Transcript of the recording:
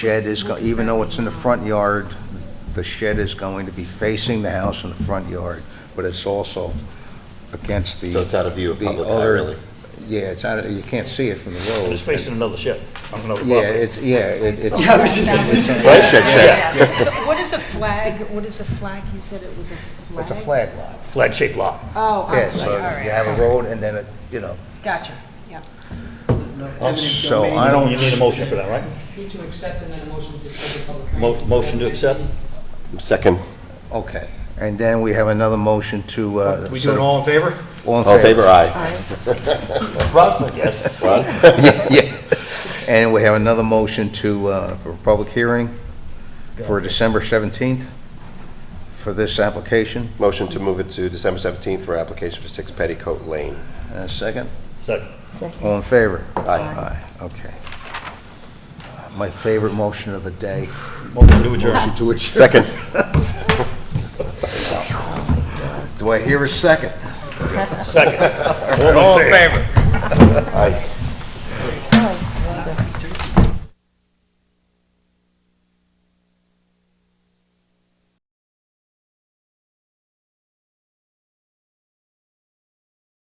shed is, go- even though it's in the front yard, the shed is going to be facing the house in the front yard, but it's also against the... So it's out of view of the public eye, other- really? Yeah, it's out, of- you can't see it from the road. It's facing another shed, on another Yeah, property. it's, yeah, it's... it's- Yeah, I was just- it's- I said shed. Yeah. So what is a flag, what is a flag? You said it was a flag? It's a flag lot. Flag-shaped lot. Oh, I'm Yeah, sorry, so all right. you have a road and then, it, you know, Gotcha, yeah. so I don't... You need a motion for that, right? Need to accept and then a motion to schedule public hearing. Mo- Motion to accept? Second. Okay, and then we have another motion to... uh, We do it all in favor? All in favor, aye. Rob's like, yes. Ron? Yeah, yeah. And we have another motion to, uh, for a public hearing for December 17th for this application. Motion to move it to December 17th for application for 6 Petticoat Lane. And a second? Second. All in favor? Aye. Aye, okay. My favorite motion of the day. Motion to adjourn. Motion to adjourn. Second. Do I hear a second? Second. All in favor? Aye.